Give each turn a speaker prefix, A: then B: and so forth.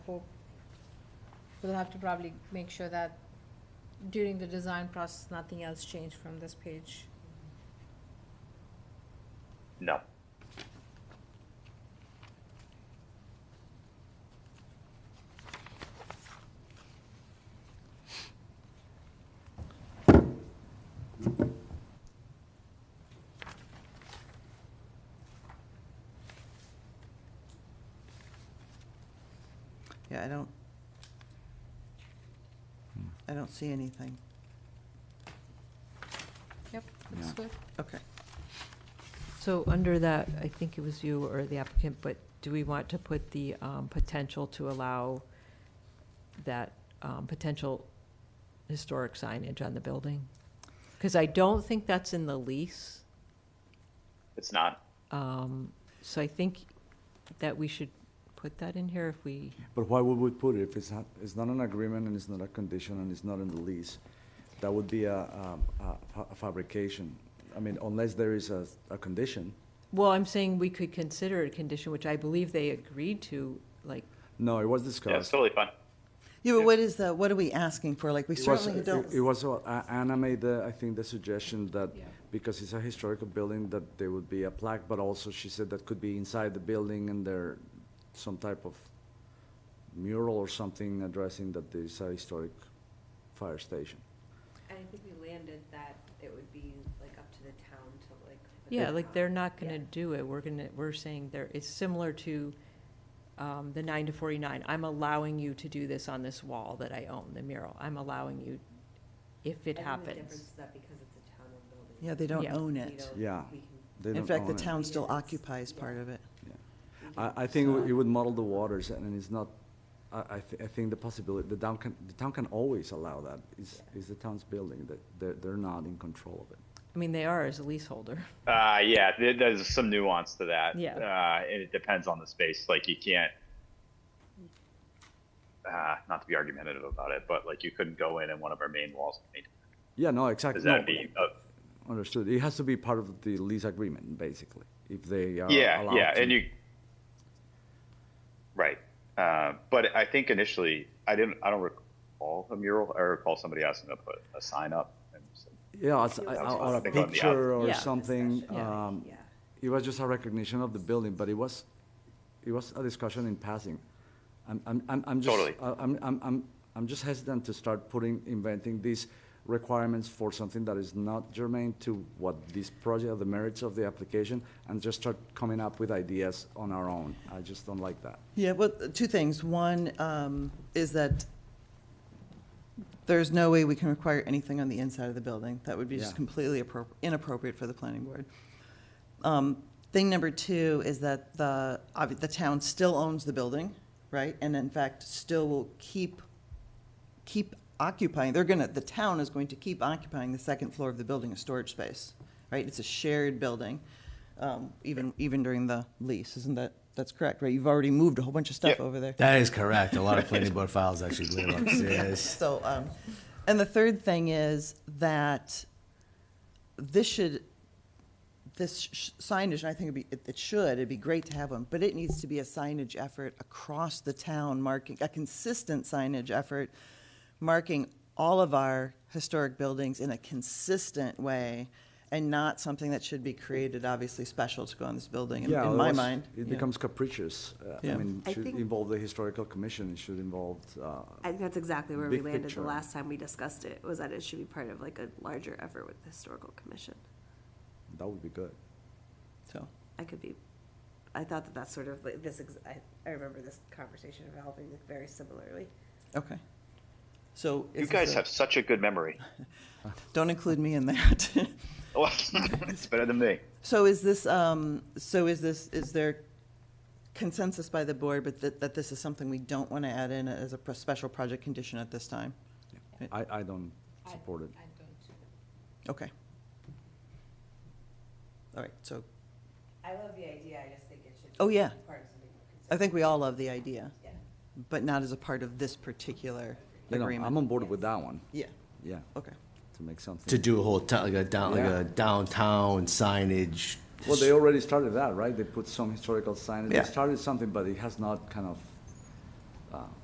A: therefore, we'll have to probably make sure that during the design process, nothing else changed from this page.
B: No.
C: Yeah, I don't,
D: Hmm.
C: I don't see anything.
A: Yep, looks
D: Yeah.
A: good.
C: Okay.
E: So under that, I think it was you or the applicant, but do we want to put the um, potential to allow that um, potential historic signage on the building? Because I don't think that's in the lease,
B: It's not.
E: so I think that we should put that in here if we,
D: But why would we put it if it's not, it's not an agreement and it's not a condition and it's not in the lease? That would be a, um, a fa- a fabrication. I mean, unless there is a, a condition.
E: well, I'm saying we could consider it a condition, which I believe they agreed to, like,
D: No, it was
B: Yeah, it's
D: discussed.
B: totally fine.
C: Yeah, but what is the, what are we asking for? Like, we
D: It was-
C: certainly
D: it-
C: don't.
D: It was, uh, Anna made the, I think, the suggestion that,
E: Yeah.
D: because it's a historical building, that there would be a plaque, but also she said that could be inside the building and there, some type of mural or something addressing that there's a historic fire station.
F: And I think we landed that it would be like up to the town to like. put
E: Yeah,
F: that
E: like
F: on.
E: they're not gonna
F: Yeah.
E: do it, we're gonna, we're saying there, it's similar to, um, the nine to forty-nine, I'm allowing you to do this on this wall that I own, the mural, I'm allowing you, if it
F: I think the difference
E: happens.
F: is that because it's a town-owned building.
C: Yeah, they don't
E: Yeah.
C: own
F: we
C: it.
F: don't-
D: Yeah.
F: we can-
D: They
C: In
D: don't
C: fact, the
D: own it.
C: town still
F: Yeah, it's-
C: occupies part of it.
D: I, I think it would- it would muddle the waters, and it's not, I, I, thi- I think the possibility, the town can, the town can always allow that. It's, it's the town's building, that they're, they're not in control of it.
E: I mean, they are as a leaseholder,
B: Uh, yeah, there, there's some nuance to that.
E: Yeah.
B: Uh, and it depends on the space. Like you can't, uh, not to be argumentative about it, but like you couldn't go in and one of our main walls and paint.
D: Yeah, no, exactly.
B: Because that'd be, uh,
D: Understood. It has to be part of the lease agreement, basically, if they are Oh, allowed to.
B: yeah, yeah. And you, right. Uh, but I think initially I didn't, I don't recall a mural. I recall somebody asking to put a sign up. And so,
D: Yeah, it's-
F: That's
D: or- or a
B: possible.
D: picture or
E: Yeah.
D: something.
F: Discussion,
E: Yeah.
D: um,
F: yeah.
D: It was just a recognition of the building, but it was, it was a discussion in passing. I'm, I'm, I'm I'm just.
B: Totally.
D: I- I'm, I'm, I'm, I'm just hesitant to start putting, inventing these requirements for something that is not germane to what this project, the merits of the application, and just start coming up with ideas on our own. I just don't like that.
C: Yeah, well, two things. One um, is that there's no way we can require anything on the inside of the building. That would be just
D: Yeah.
C: completely appro- inappropriate for the planning board. Um, Thing number two is that the, obvi- the town still owns the building, right? And in fact, still will keep, keep occupying, they're gonna, the town is going to keep occupying the second floor of the building as storage space, right? It's a shared building, um, even, even during the lease, isn't that, that's correct, right? You've already moved a whole bunch of stuff
B: Yeah.
C: over there.
G: That is correct. A lot of planning board files actually live upstairs.
C: So, um, and the third thing is that this should, this sh- signage, and I think it'd be, it, it should, it'd be great to have one, but it needs to be a signage effort across the town, marking, a consistent signage effort, marking all of our historic buildings in a consistent way, and not something that should be created, obviously, special to go on this building, in,
D: Yeah,
C: in my
D: otherwise
C: mind.
D: It
C: Yeah.
D: becomes capricious. Uh, I
C: Yeah.
D: mean,
F: I
D: it should
F: think-
D: involve the historical commission, it should involve, uh,
F: I think that's exactly where we
D: Big
F: landed
D: picture.
F: the last time we discussed it, was that it should be part of like a larger effort with the historical commission.
D: that would be good.
C: So,
F: I could be, I thought that that's sort of like this, ex- I, I remember this conversation evolving very similarly.
C: okay. So.
B: you
C: is this
B: guys
C: a-
B: have such a good memory.
C: Don't include me in that.
B: it's better than me.
C: So is this, um, so is this, is there consensus by the board, but that, that this is something we don't want to add in as a pro- special project condition at this time?
D: I, I don't support it.
A: I don't.
C: Okay. All right, so
F: I love the idea, I just think it should.
C: Oh, yeah.
F: Part of something more consistent.
C: I think we all love the idea,
F: Yeah.
C: but not as a part of this particular
D: You know, I'm
C: agreement.
D: on board with that one,
C: Yeah,
D: yeah,
C: okay.
D: to make something.
G: To do a whole town, like a down, like
D: Yeah.
G: a downtown signage.
D: Well, they already started that, right? They put some historical signage, they
C: Yeah.
D: started something, but it has not kind of, uh,